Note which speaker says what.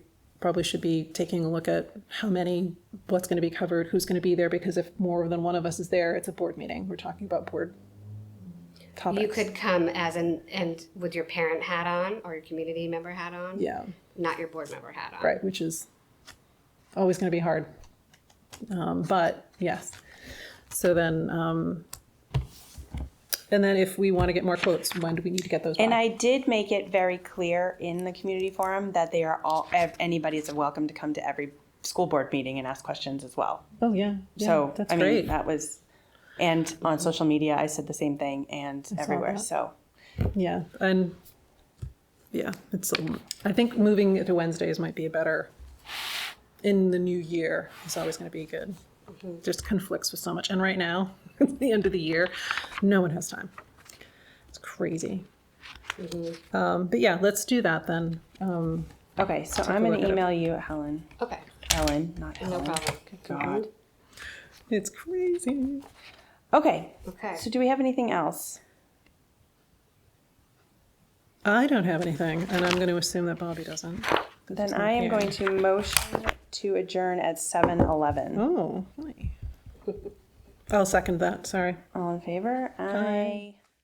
Speaker 1: probably should be taking a look at how many, what's going to be covered, who's going to be there, because if more than one of us is there, it's a board meeting. We're talking about board topics.
Speaker 2: You could come as an, and with your parent hat on or your community member hat on.
Speaker 1: Yeah,
Speaker 2: Not your board member hat on.
Speaker 1: right, which is always going to be hard. Um, but yes, so then, um, and then if we want to get more quotes, when do we need to get those?
Speaker 3: And
Speaker 1: by?
Speaker 3: I did make it very clear in the community forum that they are all, ev- anybody is welcome to come to every school board meeting and ask questions as well.
Speaker 1: Oh, yeah. yeah,
Speaker 3: So,
Speaker 1: that's
Speaker 3: I mean,
Speaker 1: great.
Speaker 3: that was, and on social media, I said the same thing and everywhere,
Speaker 1: that.
Speaker 3: so.
Speaker 1: Yeah, and yeah, it's. um, I think moving it to Wednesdays might be a better. In the new year, it's always going to be good. Just conflicts with so much, and right now, it's the end of the year, no one has time. It's crazy. Um, but yeah, let's do that then. Um,
Speaker 3: Okay, so I'm
Speaker 1: look
Speaker 3: gonna
Speaker 1: at it.
Speaker 3: email you, Helen,
Speaker 2: Okay,
Speaker 3: Ellen, not
Speaker 2: no
Speaker 3: Helen.
Speaker 2: problem.
Speaker 3: God.
Speaker 1: it's crazy.
Speaker 3: Okay,
Speaker 2: Okay.
Speaker 3: so do we have anything else?
Speaker 1: I don't have anything, and I'm going to assume that Bobby doesn't.
Speaker 3: Then I am going to motion to adjourn at seven eleven.
Speaker 1: Oh, hi. I'll second that. Sorry.
Speaker 3: All in favor? Aye.